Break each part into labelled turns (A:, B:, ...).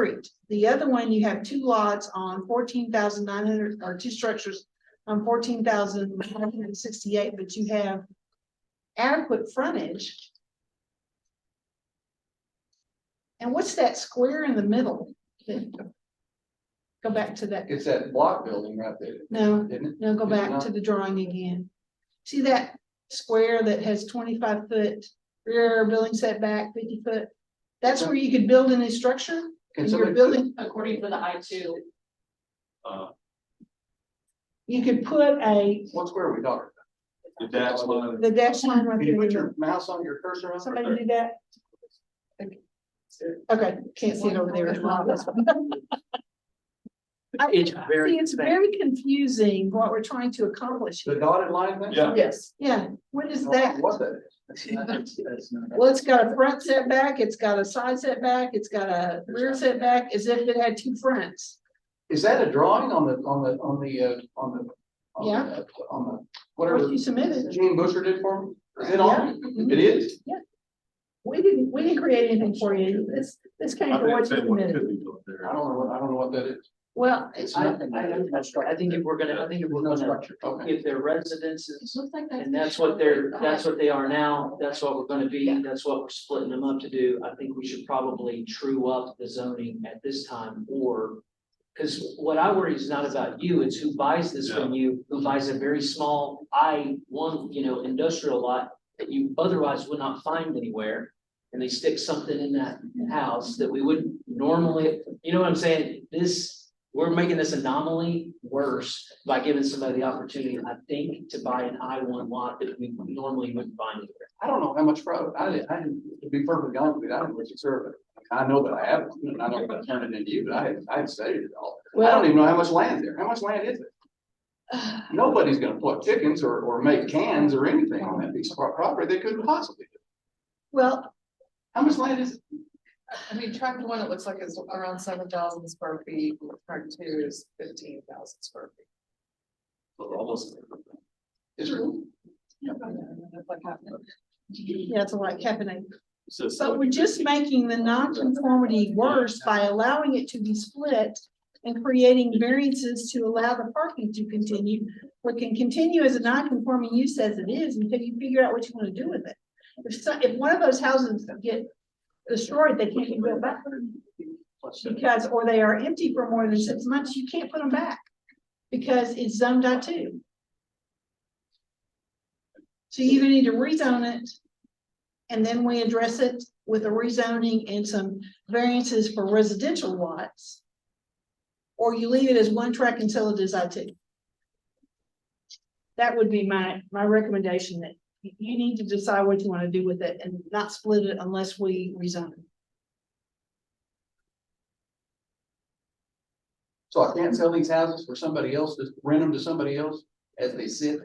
A: Creek. The other one, you have two lots on fourteen thousand nine hundred, or two structures on fourteen thousand nine hundred and sixty-eight, but you have adequate frontage. And what's that square in the middle? Go back to that,
B: It's that block building right there,
A: no,
B: isn't it?
A: no, go
B: It's
A: back
B: not-
A: to the drawing again. See that square that has twenty-five foot rear building setback, fifty foot? That's where you could build a new structure,
B: Can
A: and you're
B: somebody-
A: building,
C: according to the I two,
D: Uh,
A: you could put a,
B: What square are we talking? about?
D: the dash line,
A: the dash line right
B: Can you put
A: there.
B: your mouse on your cursor? on?
A: Somebody do that? Okay, can't see it over there. I-
E: It's very
A: See, it's very confusing what we're trying to accomplish.
B: The
A: here.
B: dotted line thing?
D: Yeah.
A: Yes, yeah, what is
B: I don't
A: that?
B: know What that is.
A: Well, it's got a front setback, it's got a side setback, it's got a rear setback, as if it had two fronts.
B: Is that a drawing on the, on the, on the, uh, on the? on the- uh,
A: Yeah.
B: On the,
A: What
B: whatever
A: you submitted,
B: Gene Busher did for me? Is it on? It is?
A: we didn't, we didn't create anything for you, this, this came
D: I
A: from
D: think
A: what you
D: that one
A: submitted.
D: could be built there.
B: I don't know, what I don't know what that is.
A: Well,
B: It's
E: I, I,
B: nothing.
E: don't know. I think if we're gonna, I think if we're
B: No
E: gonna,
B: structure, okay.
E: if they're residences,
C: looks like
E: and that's what they're, that's what they are now, that's what we're gonna be, that's what we're splitting them up to do. I think we should probably true up the zoning at this time, or, cause what I worry is not about you, it's who buys this from you, who buys a very small I one, you know, industrial lot that you otherwise would not find anywhere, and they stick something in that house that we wouldn't normally, you know what I'm saying? This, we're making this anomaly worse by giving somebody the opportunity, I think, to buy an I one lot that we normally wouldn't buy anywhere.
B: I don't know how much product, I didn't, I didn't, to be perfectly honest with you, I didn't really serve it. I know that I have, one, and I don't know if I turned it into you, but I haven't, I haven't studied it all. I
A: well,
B: don't even know how much land there, how much land is it? Nobody's gonna pluck chickens or, or make cans or anything on that piece of pro- property, they couldn't possibly. do.
A: well,
B: How much land is, it?
F: I mean, tract one, it looks like it's around seven thousand square feet, and tract two is fifteen thousand square feet.
D: Almost.
B: is there?
F: That's like half an acre.
A: yeah, it's like happening.
D: So,
A: So we're just making the nonconformity worse by allowing it to be split and creating variances to allow the parking to continue. What can continue as a nonconforming use as it is until you figure out what you want to do with it. If so, if one of those houses get destroyed, they can't be built back. Because, or they are empty for more than six months, you can't put them back. Because it's zoned I two. So you either need to rezone it. And then we address it with a rezoning and some variances for residential lots. Or you leave it as one track and sell it as I two. That would be my, my recommendation that you, you need to decide what you wanna do with it and not split it unless we rezone. it.
B: So I can't sell these houses for somebody else, just rent them to somebody else as they sit?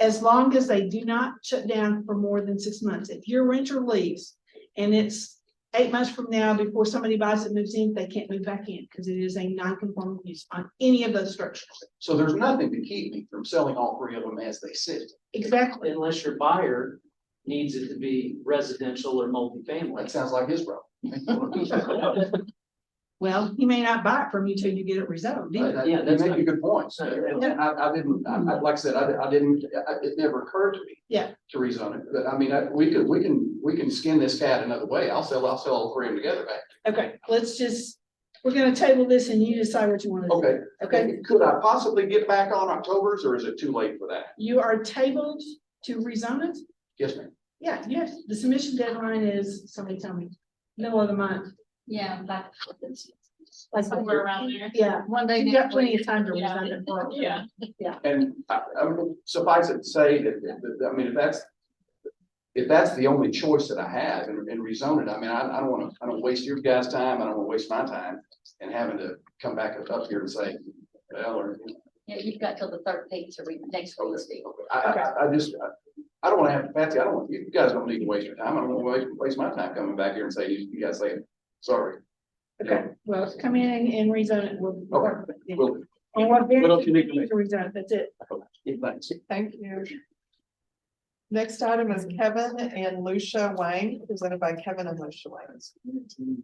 A: As long as they do not shut down for more than six months. If your renter leaves and it's eight months from now before somebody buys it, moves in, they can't move back in because it is a non-conforming use on any of those structures.
B: So there's nothing to keep me from selling all three of them as they sit.
A: Exactly.
E: Unless your buyer needs it to be residential or
B: That
E: multifamily.
B: sounds like his problem.
A: Well, he may not buy it from you till you get it rezoned either.
B: But
E: Yeah,
B: You
E: that's
B: make a
E: not-
B: good point.
E: not your-
B: And I, I didn't, I, I- like I said, I, I didn't, I- it never occurred to me.
A: Yeah.
B: To rezone it, but I mean, I, we could, we can, we can skin this cat another way. I'll sell, I'll sell all three of them together back.
A: Okay, let's just, we're gonna table this and you decide what you wanna do,
B: Okay.
A: okay?
B: Could I possibly get back on October's or is it too late for that?
A: You are tabled to rezone it?
B: Yes, ma'am.
A: Yeah, yes, the submission deadline is, somebody tell me, middle of the month.
C: Yeah, like.
A: Like
C: Somewhere around there.
A: Yeah,
F: One day.
A: you got plenty of time to
C: Yeah.
A: rezone it. for October.
C: Yeah.
B: And I, I mean, suffice it to say that, that- that- I mean, if that's. If that's the only choice that I have and, and rezone it, I mean, I, I don't wanna, I don't waste your guys' time, I don't wanna waste my time. And having to come back up here and say, well, or,
C: Yeah, you've got till the thirteenth to read next Wednesday.
B: I, I, I just, I- I don't wanna have, Patsy, I don't, want you guys don't need to waste your time, I don't wanna waste, waste my time coming back here and say, you, you guys say, sorry.
A: Okay, well, come in and- and rezone it, we'll. we'll work with it.
B: Well,
A: And what
B: What else you need
A: variance
B: to
A: you need to rezone, it, that's it.
B: thanks.
F: Thank you. Next item is Kevin and Lucia Wang, presented by Kevin and Lucia Wang.